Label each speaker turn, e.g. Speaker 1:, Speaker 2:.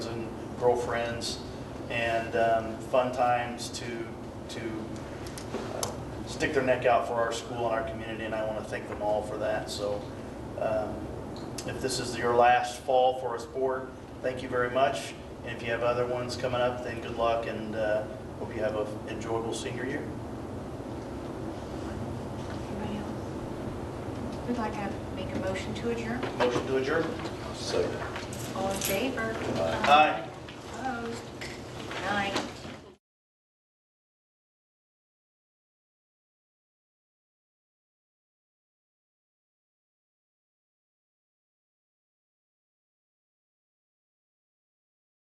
Speaker 1: girlfriends, and um, fun times to, to uh, stick their neck out for our school and our community, and I want to thank them all for that. So um, if this is your last fall for a sport, thank you very much. And if you have other ones coming up, then good luck, and uh, hope you have an enjoyable senior year.
Speaker 2: Anybody else? We'd like to make a motion to adjourn.
Speaker 1: Motion to adjourn?
Speaker 2: All in favor?
Speaker 1: Aye.